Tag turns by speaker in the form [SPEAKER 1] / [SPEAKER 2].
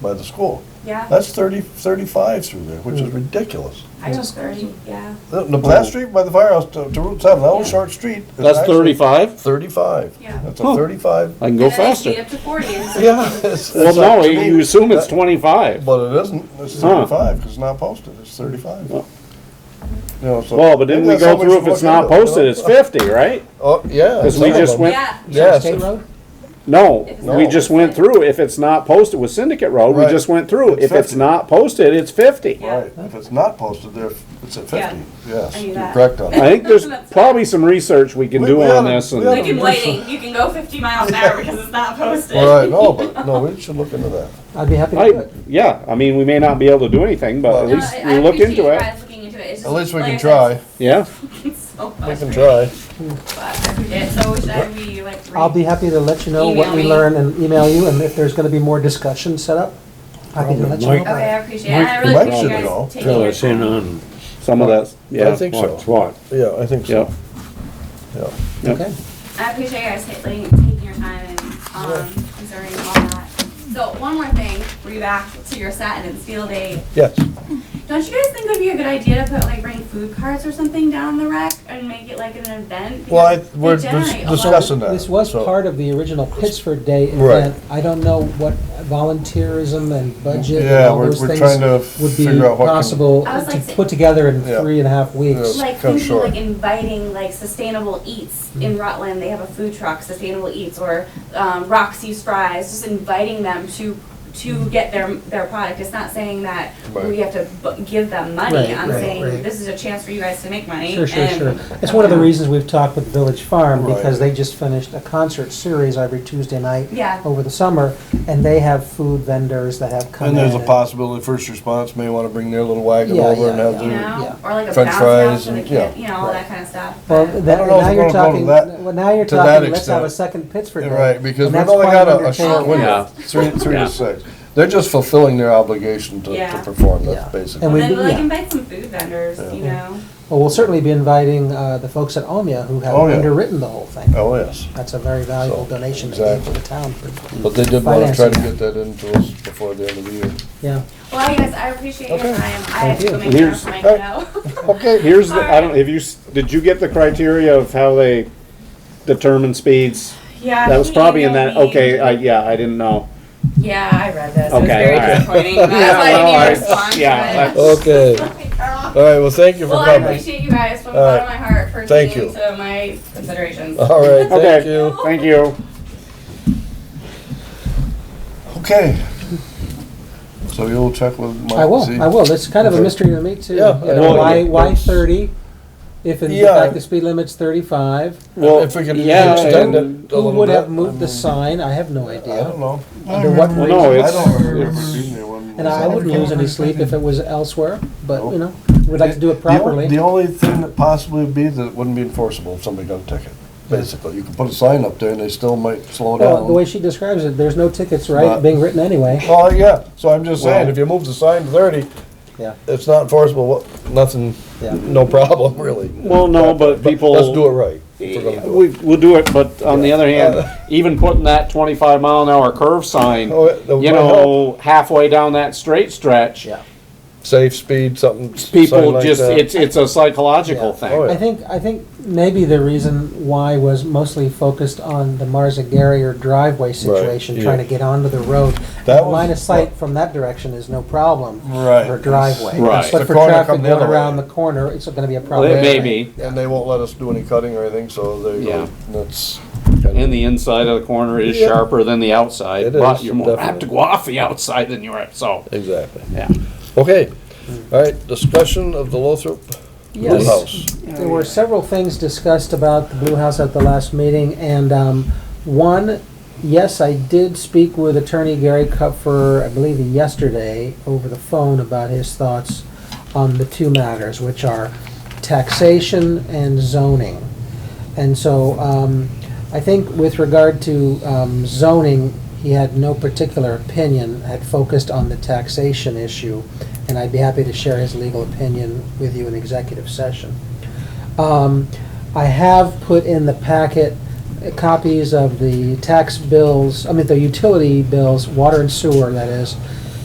[SPEAKER 1] by the school.
[SPEAKER 2] Yeah,
[SPEAKER 1] That's 30, 35 through there, which is ridiculous.
[SPEAKER 2] I was thirty, yeah.
[SPEAKER 1] The the last street by the firehouse to, to Route 7, that whole short street. is
[SPEAKER 3] That's
[SPEAKER 1] actually
[SPEAKER 3] thirty-five?
[SPEAKER 1] 35.
[SPEAKER 2] Yeah.
[SPEAKER 1] That's a
[SPEAKER 3] Huh.
[SPEAKER 1] 35.
[SPEAKER 3] I can go
[SPEAKER 2] And then I speed
[SPEAKER 3] faster.
[SPEAKER 2] up to forty. and so-
[SPEAKER 1] Yeah. it's-
[SPEAKER 3] Well,
[SPEAKER 1] it's like-
[SPEAKER 3] no,
[SPEAKER 1] to me,
[SPEAKER 3] you assume it's
[SPEAKER 1] that-
[SPEAKER 3] twenty-five.
[SPEAKER 1] But it isn't, it's
[SPEAKER 3] Huh.
[SPEAKER 1] thirty-five, because it's not posted, it's thirty-five.
[SPEAKER 3] Well.
[SPEAKER 1] You know, so-
[SPEAKER 3] Well, but didn't we
[SPEAKER 1] Isn't that
[SPEAKER 3] go
[SPEAKER 1] something
[SPEAKER 3] through if
[SPEAKER 1] should
[SPEAKER 3] it's
[SPEAKER 1] look
[SPEAKER 3] not
[SPEAKER 1] into, you know?
[SPEAKER 3] posted, it's fifty, right?
[SPEAKER 1] Oh, yeah.
[SPEAKER 3] 'Cause we
[SPEAKER 1] some of
[SPEAKER 3] just
[SPEAKER 1] them.
[SPEAKER 3] went-
[SPEAKER 2] Yeah.
[SPEAKER 1] Yes.
[SPEAKER 4] State road?
[SPEAKER 3] No,
[SPEAKER 2] If it's
[SPEAKER 3] we
[SPEAKER 1] not
[SPEAKER 3] just went
[SPEAKER 2] posted.
[SPEAKER 3] through, if it's not posted with Syndicate Road, we
[SPEAKER 1] Right.
[SPEAKER 3] just went through.
[SPEAKER 1] It's
[SPEAKER 3] If it's
[SPEAKER 1] 50.
[SPEAKER 3] not posted, it's fifty.
[SPEAKER 2] Yeah.
[SPEAKER 1] Right, if it's not posted, there, it's at
[SPEAKER 2] Yeah.
[SPEAKER 1] fifty, yes,
[SPEAKER 2] I knew
[SPEAKER 1] you're
[SPEAKER 2] that.
[SPEAKER 1] correct on
[SPEAKER 3] I
[SPEAKER 1] that.
[SPEAKER 3] think there's
[SPEAKER 2] That's-
[SPEAKER 3] probably some research we can
[SPEAKER 1] We-
[SPEAKER 3] do
[SPEAKER 1] we
[SPEAKER 3] on
[SPEAKER 1] oughta-
[SPEAKER 3] this
[SPEAKER 1] we
[SPEAKER 2] We
[SPEAKER 3] and,
[SPEAKER 1] oughta-
[SPEAKER 2] can waiting, you can go fifty miles an hour because it's not posted.
[SPEAKER 1] All right, no, but, no, we should look into that.
[SPEAKER 4] I'd be happy to do
[SPEAKER 3] I,
[SPEAKER 4] it.
[SPEAKER 3] yeah, I mean, we may not be able to do anything, but
[SPEAKER 1] Well-
[SPEAKER 3] at
[SPEAKER 2] No,
[SPEAKER 3] least
[SPEAKER 2] I-
[SPEAKER 3] we look into
[SPEAKER 2] I appreciate you
[SPEAKER 3] it.
[SPEAKER 2] guys looking into it. It's
[SPEAKER 1] At
[SPEAKER 2] just
[SPEAKER 1] least we
[SPEAKER 2] like
[SPEAKER 1] can
[SPEAKER 2] I said,
[SPEAKER 1] try,
[SPEAKER 3] Yeah,
[SPEAKER 2] it's so
[SPEAKER 1] we
[SPEAKER 2] much
[SPEAKER 1] can
[SPEAKER 2] work,
[SPEAKER 1] try.
[SPEAKER 2] but I forget. So should I be like?
[SPEAKER 4] I'll be happy to let you know what
[SPEAKER 2] Email
[SPEAKER 4] we
[SPEAKER 2] me.
[SPEAKER 4] learn and email you, and if there's gonna be more discussion set up, happy to let you
[SPEAKER 5] Mike-
[SPEAKER 4] know.
[SPEAKER 2] Okay, I appreciate it. And I really
[SPEAKER 1] Mike
[SPEAKER 2] appreciate you
[SPEAKER 1] should know.
[SPEAKER 2] guys taking
[SPEAKER 5] Fill
[SPEAKER 2] your
[SPEAKER 5] us in
[SPEAKER 2] time.
[SPEAKER 5] on
[SPEAKER 3] some of that, yeah.
[SPEAKER 1] I think so.
[SPEAKER 5] what's what.
[SPEAKER 1] Yeah, I think
[SPEAKER 3] Yeah.
[SPEAKER 1] so, yeah.
[SPEAKER 4] Okay.
[SPEAKER 2] I appreciate you guys ta- like, taking your time and um, considering all that. So one more thing, we're back to your Satin and Steel Day.
[SPEAKER 1] Yes,
[SPEAKER 2] Don't you guys think it would be a good idea to put like bring food carts or something down the rec and make it like an event?
[SPEAKER 1] well, I,
[SPEAKER 2] Because they
[SPEAKER 1] we're
[SPEAKER 2] generate a
[SPEAKER 1] dis-
[SPEAKER 2] lot of-
[SPEAKER 1] discussing that.
[SPEAKER 4] This was
[SPEAKER 1] so-
[SPEAKER 4] part of the original Pittsford Day
[SPEAKER 1] Right.
[SPEAKER 4] event. I don't know what volunteerism and budget and
[SPEAKER 1] Yeah,
[SPEAKER 4] all
[SPEAKER 1] we're-
[SPEAKER 4] those
[SPEAKER 1] we're
[SPEAKER 4] things
[SPEAKER 1] trying to
[SPEAKER 4] would be
[SPEAKER 1] figure out what can-
[SPEAKER 4] possible
[SPEAKER 2] I was
[SPEAKER 4] to
[SPEAKER 2] like say-
[SPEAKER 4] put together in
[SPEAKER 1] Yeah.
[SPEAKER 4] three and a half weeks.
[SPEAKER 1] Yeah.
[SPEAKER 2] Like
[SPEAKER 1] Come
[SPEAKER 2] thinking
[SPEAKER 1] short.
[SPEAKER 2] like inviting like sustainable eats
[SPEAKER 1] Mm-hmm.
[SPEAKER 2] in Rutland, they have a food truck, sustainable eats or um, Roxy's fries, just inviting them to to get their their product. It's not saying that we
[SPEAKER 1] Right.
[SPEAKER 2] have to bu- give them money.
[SPEAKER 4] Right,
[SPEAKER 2] I'm
[SPEAKER 4] right,
[SPEAKER 2] saying
[SPEAKER 4] right.
[SPEAKER 2] this is a chance for you guys to make money.
[SPEAKER 4] Sure, sure,
[SPEAKER 2] and-
[SPEAKER 4] sure. It's one of the reasons we've talked with Village Farm,
[SPEAKER 1] Right.
[SPEAKER 4] because they just finished a concert series every Tuesday night
[SPEAKER 2] Yeah.
[SPEAKER 4] over the summer, and they have food vendors that have come
[SPEAKER 1] And
[SPEAKER 4] in.
[SPEAKER 1] there's a possibility first response may wanna bring their little wagon
[SPEAKER 4] Yeah,
[SPEAKER 1] over and
[SPEAKER 4] yeah,
[SPEAKER 1] have
[SPEAKER 4] yeah.
[SPEAKER 2] You
[SPEAKER 1] their,
[SPEAKER 2] know,
[SPEAKER 4] Oh, Yeah.
[SPEAKER 2] or like a
[SPEAKER 1] French
[SPEAKER 2] bounce
[SPEAKER 1] fries
[SPEAKER 2] house for the
[SPEAKER 1] and-
[SPEAKER 2] kid,
[SPEAKER 1] yeah.
[SPEAKER 2] you know, all that kind of stuff.
[SPEAKER 4] Well,
[SPEAKER 2] But-
[SPEAKER 4] that,
[SPEAKER 1] don't know if
[SPEAKER 4] now
[SPEAKER 1] we're gonna
[SPEAKER 4] you're
[SPEAKER 1] go to
[SPEAKER 4] talking,
[SPEAKER 1] that-
[SPEAKER 4] well, now you're
[SPEAKER 1] to that
[SPEAKER 4] talking, let's
[SPEAKER 1] extent.
[SPEAKER 4] have a second Pittsburgh. Day.
[SPEAKER 1] right, because
[SPEAKER 4] And
[SPEAKER 1] we've
[SPEAKER 4] that's
[SPEAKER 1] only
[SPEAKER 4] quite
[SPEAKER 1] got a- a
[SPEAKER 4] undertaking.
[SPEAKER 1] short window,
[SPEAKER 3] Yeah.
[SPEAKER 1] three, three
[SPEAKER 3] Yeah.
[SPEAKER 1] to six. They're just fulfilling their obligation to,
[SPEAKER 2] Yeah.
[SPEAKER 1] to perform,
[SPEAKER 4] Yeah.
[SPEAKER 1] that's
[SPEAKER 4] And
[SPEAKER 1] basically.
[SPEAKER 4] we-
[SPEAKER 2] then we'll like
[SPEAKER 4] yeah.
[SPEAKER 2] invite some food vendors, you
[SPEAKER 4] Yeah.
[SPEAKER 2] know.
[SPEAKER 4] Well, we'll certainly be inviting uh, the folks at Omia who have
[SPEAKER 1] Oh, yeah.
[SPEAKER 4] underwritten the whole thing.
[SPEAKER 1] Oh, yes.
[SPEAKER 4] That's a very valuable
[SPEAKER 1] So,
[SPEAKER 4] donation they gave to
[SPEAKER 1] exactly.
[SPEAKER 4] the town.
[SPEAKER 1] But they did want to try to
[SPEAKER 4] Financing.
[SPEAKER 1] get that into us before the end of the year.
[SPEAKER 4] Yeah.
[SPEAKER 2] Well, you guys, I appreciate your
[SPEAKER 1] Okay.
[SPEAKER 2] time. I have to
[SPEAKER 4] you.
[SPEAKER 2] go make dinner
[SPEAKER 3] Here's-
[SPEAKER 2] for my kiddo.
[SPEAKER 1] Okay.
[SPEAKER 3] Here's the, I don't, have you, s- did you get the criteria of how they determine speeds?
[SPEAKER 2] Yeah,
[SPEAKER 3] That was
[SPEAKER 2] he
[SPEAKER 3] probably in
[SPEAKER 2] emailed
[SPEAKER 3] that,
[SPEAKER 2] me.
[SPEAKER 3] okay, I, yeah, I didn't know.
[SPEAKER 2] Yeah, I read this. it
[SPEAKER 3] Okay,
[SPEAKER 2] was very
[SPEAKER 3] all right.
[SPEAKER 2] disappointing. That's
[SPEAKER 3] Yeah,
[SPEAKER 2] why
[SPEAKER 3] well, I-
[SPEAKER 2] I didn't even respond
[SPEAKER 3] yeah,
[SPEAKER 2] to it.
[SPEAKER 1] Okay. All right, well, thank you for
[SPEAKER 2] Well, I
[SPEAKER 1] coming.
[SPEAKER 2] appreciate you guys from the
[SPEAKER 1] All
[SPEAKER 2] bottom of my
[SPEAKER 1] right.
[SPEAKER 2] heart for
[SPEAKER 1] Thank
[SPEAKER 2] taking
[SPEAKER 1] you.
[SPEAKER 2] into my considerations.
[SPEAKER 1] All right, thank
[SPEAKER 3] Okay,
[SPEAKER 1] you.
[SPEAKER 3] thank you.
[SPEAKER 1] Okay. So you'll check with Mike?
[SPEAKER 4] I
[SPEAKER 1] see?
[SPEAKER 4] will, I will. It's kind of a
[SPEAKER 1] Okay.
[SPEAKER 4] mystery to me too.
[SPEAKER 1] Yeah,
[SPEAKER 4] You
[SPEAKER 1] I
[SPEAKER 4] know,
[SPEAKER 3] know.
[SPEAKER 4] why, why thirty? If in
[SPEAKER 1] Yeah.
[SPEAKER 4] fact the speed limit's thirty-five,
[SPEAKER 3] Well,
[SPEAKER 1] If we could
[SPEAKER 3] yeah,
[SPEAKER 1] extend
[SPEAKER 3] and-
[SPEAKER 1] it a
[SPEAKER 4] who
[SPEAKER 1] little
[SPEAKER 4] would
[SPEAKER 1] bit,
[SPEAKER 4] have moved the
[SPEAKER 1] I mean,
[SPEAKER 4] sign? I have no
[SPEAKER 1] I don't
[SPEAKER 4] idea.
[SPEAKER 1] know.
[SPEAKER 4] Under what
[SPEAKER 3] Well, no,
[SPEAKER 4] reason?
[SPEAKER 1] I
[SPEAKER 3] Oh, it's-
[SPEAKER 1] don't remember
[SPEAKER 3] it's-
[SPEAKER 1] being there when.
[SPEAKER 4] And I wouldn't lose any sleep if it was elsewhere, but you know, we'd like to do it
[SPEAKER 1] Oh. The on- The
[SPEAKER 4] properly.
[SPEAKER 1] only thing that possibly would be that it wouldn't be enforceable if somebody got a ticket, basically. You could put a sign up there and they still might slow
[SPEAKER 4] Well,
[SPEAKER 1] down.
[SPEAKER 4] the way she describes it, there's no tickets, right,
[SPEAKER 1] But- Oh,
[SPEAKER 4] being written anyway.
[SPEAKER 1] Well, yeah, so I'm just saying,
[SPEAKER 3] Well-
[SPEAKER 1] if you move the sign to thirty,
[SPEAKER 4] Yeah,
[SPEAKER 1] it's not enforceable, what- nothing,
[SPEAKER 4] Yeah.
[SPEAKER 1] no problem, really.
[SPEAKER 3] Well, no, but people.
[SPEAKER 1] Let's do it right.
[SPEAKER 3] We,
[SPEAKER 1] if we're gonna do it.
[SPEAKER 3] we'll do it, but on the other hand, even putting that twenty-five mile an hour curve sign,
[SPEAKER 1] Oh, it- that
[SPEAKER 3] you
[SPEAKER 1] might
[SPEAKER 3] know, halfway down that straight stretch,
[SPEAKER 4] yeah.
[SPEAKER 1] Safe speed, something. s- sign
[SPEAKER 3] people
[SPEAKER 1] like
[SPEAKER 3] just,
[SPEAKER 1] that.
[SPEAKER 3] it's, it's a psychological
[SPEAKER 4] Yeah.
[SPEAKER 1] Oh, yeah.
[SPEAKER 3] thing.
[SPEAKER 4] I think, I think maybe the reason why was mostly focused on the Marza Garrier driveway situation,
[SPEAKER 1] yeah.
[SPEAKER 4] trying to get onto the road.
[SPEAKER 1] That was-
[SPEAKER 4] Line of sight from that direction is no problem.
[SPEAKER 1] Right.
[SPEAKER 4] For driveway.
[SPEAKER 3] Right.
[SPEAKER 4] But
[SPEAKER 1] The
[SPEAKER 4] for
[SPEAKER 1] corner
[SPEAKER 4] traffic
[SPEAKER 1] come the
[SPEAKER 4] going
[SPEAKER 1] other way.
[SPEAKER 4] around the corner, it's gonna be a
[SPEAKER 3] Well,
[SPEAKER 4] problem.
[SPEAKER 3] it may be,
[SPEAKER 1] And they won't let us do any cutting or anything, so there you
[SPEAKER 3] Yeah.
[SPEAKER 1] go. That's.
[SPEAKER 3] and the inside of the corner is
[SPEAKER 1] Yeah.
[SPEAKER 3] sharper than the outside,
[SPEAKER 1] It
[SPEAKER 3] but
[SPEAKER 1] is,
[SPEAKER 3] you're more apt
[SPEAKER 1] definitely.
[SPEAKER 3] to go off the outside than you are, so,
[SPEAKER 1] Exactly.
[SPEAKER 3] yeah.
[SPEAKER 1] Okay, all right, discussion of the Lothrop Blue
[SPEAKER 4] Yes.
[SPEAKER 1] House.
[SPEAKER 4] There were several things discussed about the Blue House at the last meeting, and um, one, yes, I did speak with Attorney Gary Kupfer, I believe yesterday, over the phone about his thoughts on the two matters, which are taxation and zoning. And so um, I think with regard to um, zoning, he had no particular opinion, had focused on the taxation issue, and I'd be happy to share his legal opinion with you in executive session. Um, I have put in the packet uh, copies of the tax bills, I mean, the utility bills, water and sewer, that is,